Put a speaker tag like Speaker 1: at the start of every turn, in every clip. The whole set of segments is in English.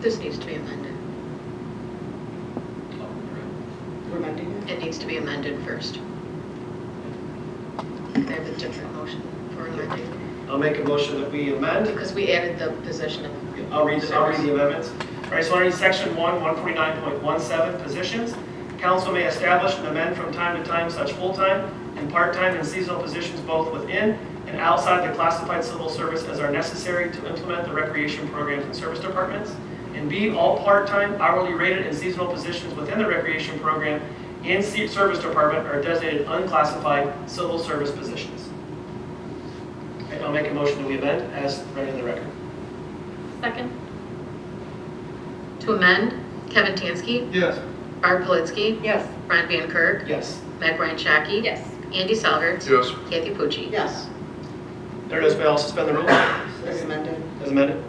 Speaker 1: This needs to be amended.
Speaker 2: We're amending it?
Speaker 1: It needs to be amended first. I have a different motion for amending,
Speaker 3: I'll make a motion that we amend.
Speaker 1: because we added the position of,
Speaker 3: I'll read, I'll read the amendments. All right, so under section one, one forty-nine point one seven, positions, council may establish and amend from time to time such full-time and part-time and seasonal positions both within and outside the classified civil service as are necessary to implement the recreation programs and service departments. And B, all part-time, hourly rated, and seasonal positions within the recreation program and se- service department are designated unclassified civil service positions. Okay, I'll make a motion that we amend as read in the record.
Speaker 4: Second?
Speaker 1: to amend, Kevin Tansky,
Speaker 5: Yes.
Speaker 1: Barb Politzky,
Speaker 2: Yes.
Speaker 1: Ron Van Kirk,
Speaker 3: Yes.
Speaker 1: Meg Ryan Shaki.
Speaker 4: Yes.
Speaker 1: Andy Selhertz.
Speaker 5: Yes.
Speaker 1: Kathy Pucci.
Speaker 2: Yes.
Speaker 3: There it is, may I suspend the rules
Speaker 2: As amended?
Speaker 3: as amended?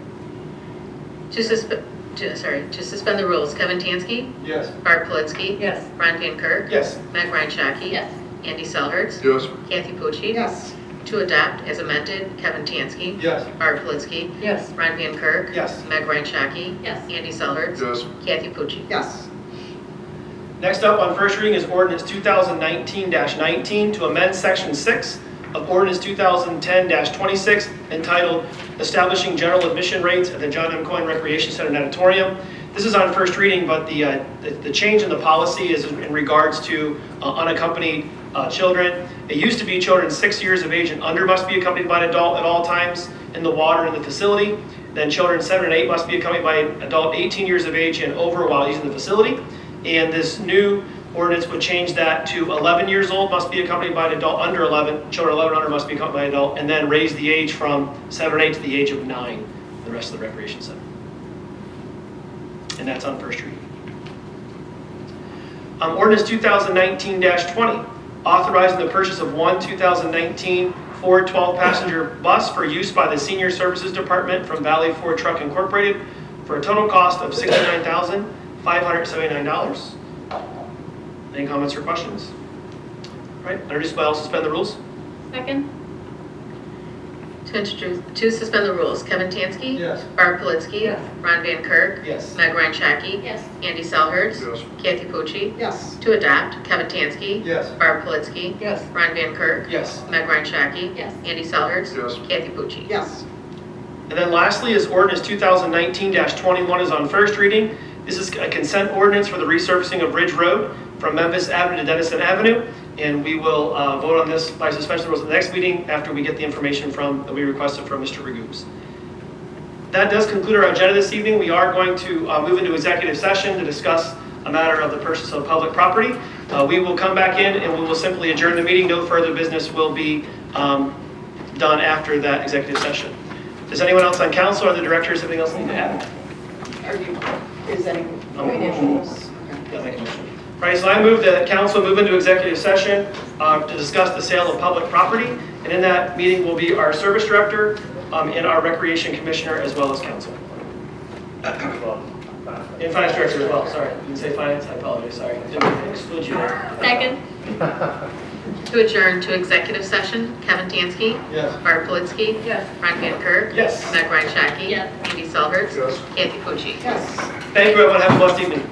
Speaker 1: To suspend, to, sorry, to suspend the rules, Kevin Tansky,
Speaker 5: Yes.
Speaker 1: Barb Politzky.
Speaker 2: Yes.
Speaker 1: Ron Van Kirk,
Speaker 3: Yes.
Speaker 1: Meg Ryan Shaki.
Speaker 4: Yes.
Speaker 1: Andy Selhertz.
Speaker 5: Yes.
Speaker 1: Kathy Pucci.
Speaker 2: Yes.
Speaker 1: To adopt as amended, Kevin Tansky,
Speaker 5: Yes.
Speaker 1: Barb Politzky,
Speaker 2: Yes.
Speaker 1: Ron Van Kirk.
Speaker 3: Yes.
Speaker 1: Meg Ryan Shaki.
Speaker 4: Yes.
Speaker 1: Andy Selhertz.
Speaker 5: Yes.
Speaker 1: Kathy Pucci.
Speaker 2: Yes.
Speaker 3: Next up on first reading is ordinance 2019-19 to amend section 6 of ordinance 2010-26 entitled Establishing General Admission Rates at the John M. Coyne Recreation Center and Auditorium. This is on first reading, but the, uh, the- the change in the policy is in regards to uh, unaccompanied uh, children. It used to be children six years of age and under must be accompanied by an adult at all times in the water in the facility. Then children seven and eight must be accompanied by an adult 18 years of age and over while using the facility. And this new ordinance would change that to 11 years old must be accompanied by an adult under 11, children 11 and under must be accompanied by an adult, and then raise the age from seven or eight to the age of nine, the rest of the recreation center. And that's on first reading. Um, Ordinance 2019-20, authorizing the purchase of one 2019 Ford 12-passenger bus for use by the Senior Services Department from Valley Ford Truck Incorporated for a total cost of $69,579. Any comments or questions? All right, introduce by all, suspend the rules?
Speaker 4: Second?
Speaker 1: To introduce, to suspend the rules, Kevin Tansky.
Speaker 5: Yes.
Speaker 1: Barb Politzky.
Speaker 2: Yes.
Speaker 1: Ron Van Kirk.
Speaker 3: Yes.
Speaker 1: Meg Ryan Shaki.
Speaker 4: Yes.
Speaker 1: Andy Selhertz.
Speaker 5: Yes.
Speaker 1: Kathy Pucci.
Speaker 2: Yes.
Speaker 1: To adopt, Kevin Tansky.
Speaker 5: Yes.
Speaker 1: Barb Politzky.
Speaker 2: Yes.
Speaker 1: Ron Van Kirk.
Speaker 3: Yes.
Speaker 1: Meg Ryan Shaki.
Speaker 4: Yes.
Speaker 1: Andy Selhertz.
Speaker 5: Yes.
Speaker 1: Kathy Pucci.
Speaker 2: Yes.
Speaker 3: And then lastly is ordinance 2019-21 is on first reading. This is a consent ordinance for the resurfacing of Ridge Road from Memphis Avenue to Dennison Avenue. And we will uh, vote on this by suspension of rules at the next meeting after we get the information from, that we requested from Mr. Regoos. That does conclude our agenda this evening. We are going to uh, move into executive session to discuss a matter of the purchase of public property. Uh, We will come back in and we will simply adjourn the meeting. No further business will be um, done after that executive session. Does anyone else on council or the directors have anything else they need to add?
Speaker 2: Are you, is any
Speaker 3: Oh.
Speaker 2: financials?
Speaker 3: Yeah, make a motion. All right, so I move that council move into executive session uh, to discuss the sale of public property. And in that meeting will be our service director um, and our recreation commissioner as well as council. And finance director as well, sorry. Didn't say finance, I apologize, sorry. Didn't exclude you.
Speaker 4: Second?
Speaker 1: To adjourn to executive session, Kevin Tansky.
Speaker 5: Yes.
Speaker 1: Barb Politzky.
Speaker 2: Yes.
Speaker 1: Ron Van Kirk.
Speaker 3: Yes.
Speaker 1: Meg Ryan Shaki.
Speaker 4: Yes.
Speaker 1: Andy Selhertz.
Speaker 5: Yes.
Speaker 1: Kathy Pucci.
Speaker 2: Yes.
Speaker 3: Thank you, everyone. Have a blessed evening.